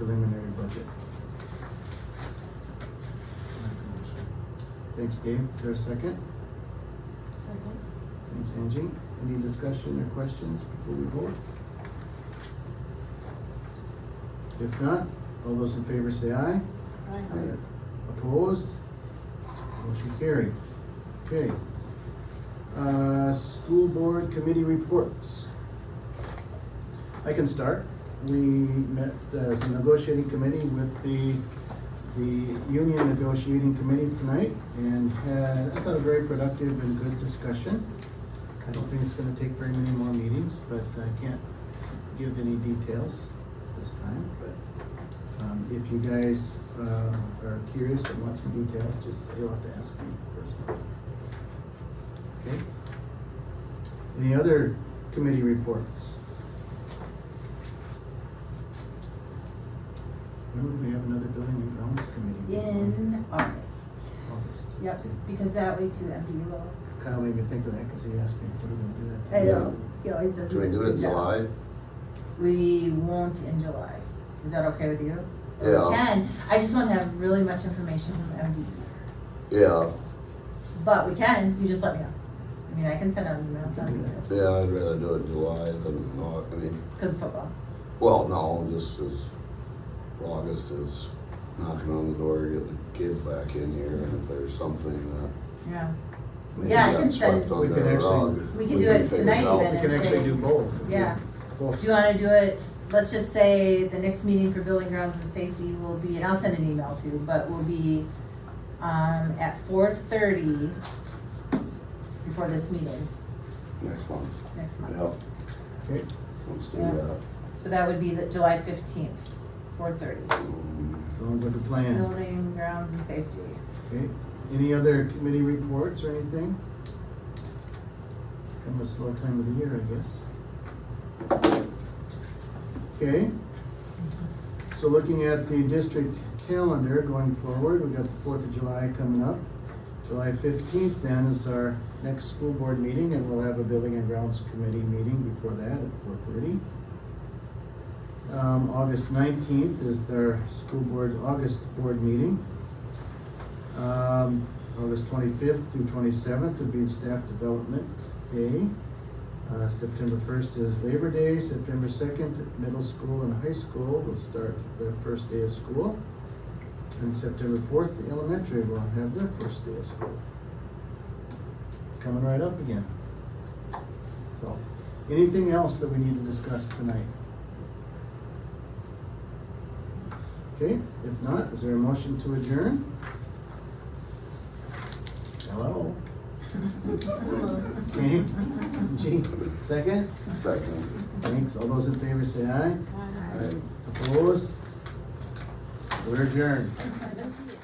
preliminary budget. Thanks, Dave. Is there a second? Second. Thanks, Angie. Any discussion or questions before we vote? If not, all those in favor say aye. Aye. Opposed? Motion carried. Okay. Uh, school board committee reports. I can start. We met as a negotiating committee with the, the union negotiating committee tonight and had, I thought, a very productive and good discussion. I don't think it's gonna take very many more meetings, but I can't give any details this time, but um, if you guys, uh, are curious and want some details, just, you'll have to ask me personally. Okay? Any other committee reports? When would we have another building and grounds committee? meeting? In August. August. Yep, Okay. because that way too, after you go, Kyle made me think of that, cause he asked me if we were gonna do that. I today. know, he always does. Can we this do it good in job. July? We won't in July. Is that okay with you? Yeah. We can. I just wanna have really much information from MD. Yeah, But we can, you just let me know. I mean, I can send out an email, it's not a big deal, yeah, I'd rather do it in July than not, I mean, cause of football. well, no, just as August is knocking on the door, getting the kids back in here, and if there's something that Yeah, maybe Yeah, I got can send- swept We under can the actually- rug. We can do it figure tonight out. even We can actually do both. yeah. Both. Do you wanna do it, let's just say the next meeting for building grounds and safety will be, and I'll send an email too, but will be, um, at four thirty before this meeting Next month, next month. yep, Okay, let's do Yeah. that. So that would be the July fifteenth, four thirty. Um, sounds like a plan. Building grounds and safety. Okay, any other committee reports or anything? Kind of a slow time of the year, I guess. Okay. So looking at the district calendar going forward, we got the Fourth of July coming up. July fifteenth then is our next school board meeting and we'll have a building and grounds committee meeting before that at four thirty. Um, August nineteenth is their school board, August board meeting. Um, August twenty-fifth through twenty-seventh would be Staff Development Day. Uh, September first is Labor Day, September second, middle school and high school will start their first day of school. And September fourth, elementary will have their first day of school. Coming right up again. So, anything else that we need to discuss tonight? Okay, if not, is there a motion to adjourn? Hello? Okay, G, second? Second, Thanks, all those in favor say aye. I Opposed? We're adjourned. I